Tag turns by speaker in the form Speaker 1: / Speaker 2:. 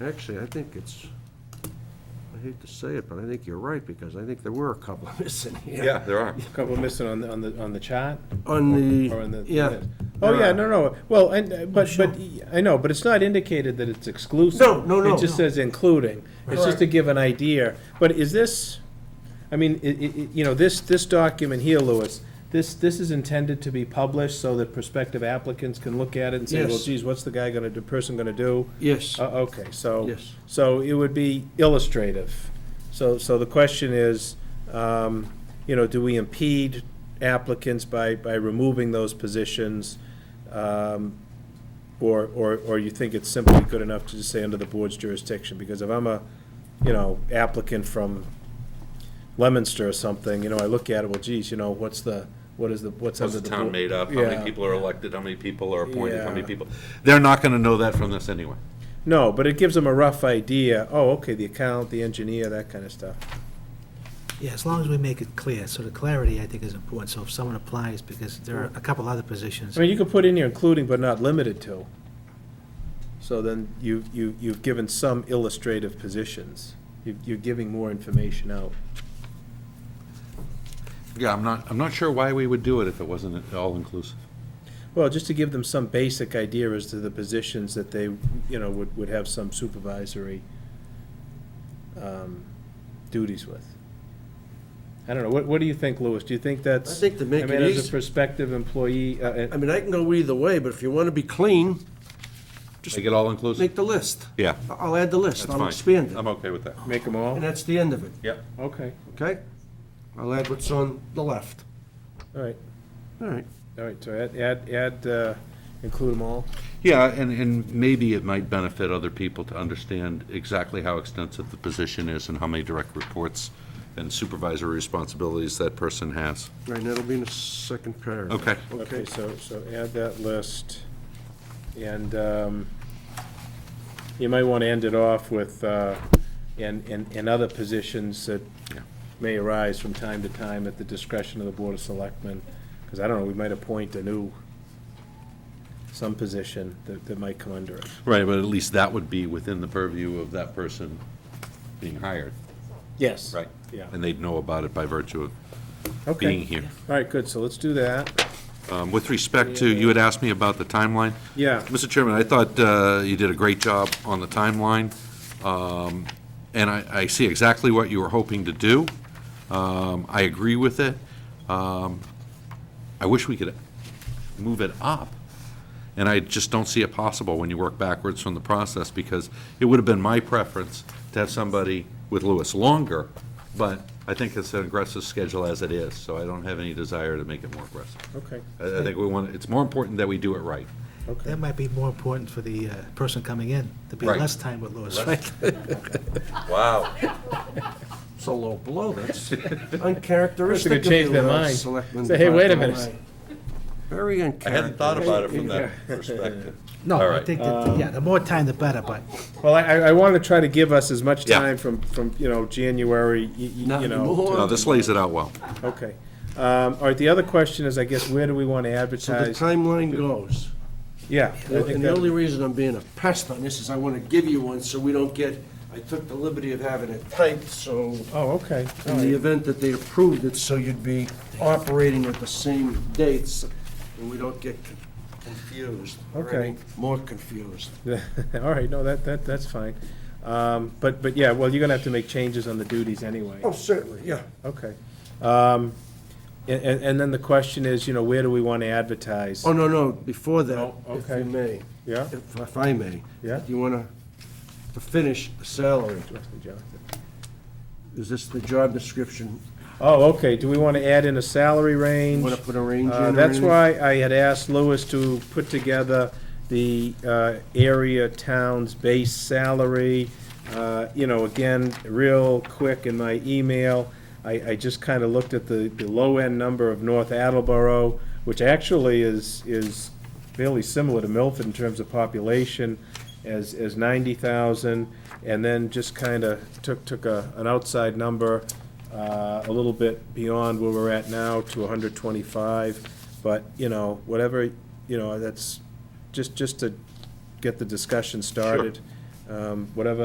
Speaker 1: Actually, I think it's, I hate to say it, but I think you're right, because I think there were a couple missing here.
Speaker 2: Yeah, there are.
Speaker 3: Couple missing on the, on the, on the chart?
Speaker 1: On
Speaker 3: Or on
Speaker 1: the,
Speaker 3: the-
Speaker 1: yeah.
Speaker 3: Oh,
Speaker 1: there
Speaker 3: yeah,
Speaker 1: are.
Speaker 3: no, no, well, and, uh, but, but, I know, but it's not indicated that it's exclusive.
Speaker 1: No, no, no.
Speaker 3: It just says including. It's just to give an idea. But is this, I mean, i- i- i- you know, this, this document here, Louis, this, this is intended to be published so that prospective applicants can look at it and say, well,
Speaker 1: Yes.
Speaker 3: geez, what's the guy gonna, the person gonna do?
Speaker 1: Yes,
Speaker 3: Uh, Okay, so.
Speaker 1: Yes.
Speaker 3: So it would be illustrative. So, so the question is, um, you know, do we impede applicants by, by removing those positions? Um, Or, or, or you think it's simply good enough to just say under the board's jurisdiction? Because if I'm a, you know, applicant from Lemonster or something, you know, I look at it, well, geez, you know, what's the, what is the, what's
Speaker 2: How's
Speaker 3: under
Speaker 2: the
Speaker 3: the
Speaker 2: town
Speaker 3: board?
Speaker 2: made up? How many
Speaker 3: Yeah.
Speaker 2: people are elected? How many people are appointed? How many
Speaker 3: Yeah.
Speaker 2: people? They're not gonna know that from this anyway.
Speaker 3: No, but it gives them a rough idea, oh, okay, the account, the engineer, that kind of stuff.
Speaker 4: Yeah, as long as we make it clear, so the clarity, I think, is important, so if someone applies, because there are a couple other positions.
Speaker 3: I mean, you could put in here including but not limited to. So then you, you, you've given some illustrative positions. You- You're giving more information out.
Speaker 2: Yeah, I'm not, I'm not sure why we would do it if it wasn't at all inclusive.
Speaker 3: Well, just to give them some basic idea as to the positions that they, you know, would, would have some supervisory um, duties with. I don't know, what, what do you think, Louis? Do you think that's?
Speaker 1: I think to make
Speaker 3: I mean,
Speaker 1: it
Speaker 3: as
Speaker 1: easy-
Speaker 3: a prospective employee, uh,
Speaker 1: I
Speaker 3: uh,
Speaker 1: mean, I can go either way, but if you want to be clean,
Speaker 2: Make it all inclusive?
Speaker 1: make the list.
Speaker 2: Yeah,
Speaker 1: I- I'll add the
Speaker 2: that's
Speaker 1: list,
Speaker 2: fine.
Speaker 1: I'll expand it,
Speaker 2: I'm okay with that.
Speaker 3: make them all?
Speaker 1: and that's the end of it,
Speaker 2: Yep.
Speaker 3: Okay,
Speaker 1: okay? I'll add what's on the left.
Speaker 3: all right,
Speaker 1: All right.
Speaker 3: all right, so add, add, add, uh, include them all?
Speaker 2: Yeah, and, and maybe it might benefit other people to understand exactly how extensive the position is and how many direct reports and supervisory responsibilities that person has.
Speaker 1: Right, and that'll be in the second paragraph.
Speaker 2: Okay.
Speaker 3: Okay, so, so add that list, and um, you might want to end it off with, uh, and, and, and other positions that
Speaker 2: Yeah.
Speaker 3: may arise from time to time at the discretion of the Board of Selectmen, because I don't know, we might appoint a new, some position that, that might come under it.
Speaker 2: Right, but at least that would be within the purview of that person being hired.
Speaker 3: Yes.
Speaker 2: Right.
Speaker 3: Yeah.
Speaker 2: And they'd know about it by virtue of being
Speaker 3: Okay,
Speaker 2: here.
Speaker 3: all right, good, so let's do that.
Speaker 2: Um, With respect to, you had asked me about the timeline.
Speaker 3: Yeah.
Speaker 2: Mr. Chairman, I thought uh, you did a great job on the timeline, um, and I I see exactly what you were hoping to do. Um, I agree with it. Um, I wish we could move it up, and I just don't see it possible when you work backwards from the process, because it would have been my preference to have somebody with Lewis longer, but I think it's an aggressive schedule as it is, so I don't have any desire to make it more aggressive.
Speaker 3: Okay,
Speaker 2: I I think we want, it's more important that we do it right.
Speaker 3: okay.
Speaker 4: That might be more important for the uh, person coming in, to be
Speaker 2: Right.
Speaker 4: less time with Louis, right?
Speaker 2: Wow.
Speaker 1: So low blow, that's
Speaker 3: They
Speaker 1: uncharacteristic
Speaker 3: could
Speaker 1: of
Speaker 3: change
Speaker 1: you,
Speaker 3: their
Speaker 1: uh,
Speaker 3: mind.
Speaker 1: Selectman.
Speaker 3: Say, hey, wait a
Speaker 1: Bartolomei.
Speaker 3: minute.
Speaker 1: Very uncharacteristic.
Speaker 2: perspective.
Speaker 4: No,
Speaker 2: All
Speaker 4: I
Speaker 2: right.
Speaker 4: think, that- yeah, the more time, the better, but
Speaker 3: Well, I, I want to try to give us as much
Speaker 2: Yeah.
Speaker 3: time from, from, you know, January, y- y-
Speaker 1: Not
Speaker 3: you know.
Speaker 1: anymore.
Speaker 2: No, this lays it out well.
Speaker 3: Okay. Um, All right, the other question is, I guess, where do we want to
Speaker 1: So the
Speaker 3: advertise?
Speaker 1: timeline goes.
Speaker 3: Yeah. I think
Speaker 1: And the only
Speaker 3: that-
Speaker 1: reason I'm being a pest on this is I want to give you one so we don't get, I took the liberty of having it typed, so
Speaker 3: Oh, okay. All
Speaker 1: in the
Speaker 3: right.
Speaker 1: event that they approved it, so you'd be operating at the same dates, and we don't get con- confused. or
Speaker 3: Okay.
Speaker 1: any More confused.
Speaker 3: All right, no, that, that, that's fine. Um, But, but yeah, well, you're going to have to make changes on the duties anyway.
Speaker 1: Oh, certainly, yeah.
Speaker 3: Okay. Um, And, and and then the question is, you know, where do we want to advertise?
Speaker 1: Oh, no, no, before that,
Speaker 3: Oh,
Speaker 1: if
Speaker 3: okay.
Speaker 1: you may.
Speaker 3: Yeah?
Speaker 1: If if I may.
Speaker 3: Yeah.
Speaker 1: You want to finish the salary. Is this the job description?
Speaker 3: Oh, okay, do we want to add in a salary range?
Speaker 1: Want to put a range in or
Speaker 3: Uh, That's
Speaker 1: anything?
Speaker 3: why I had asked Lewis to put together the uh, area town's base salary. Uh, You know, again, real quick in my email, I, I just kind of looked at the, the low-end number of North Attleboro, which actually is, is fairly similar to Milford in terms of population, as, as ninety thousand, and then just kind of took, took a, an outside number, uh, a little bit beyond where we're at now to hundred twenty-five, but, you know, whatever, you know, that's, just, just to get the discussion started. um, whatever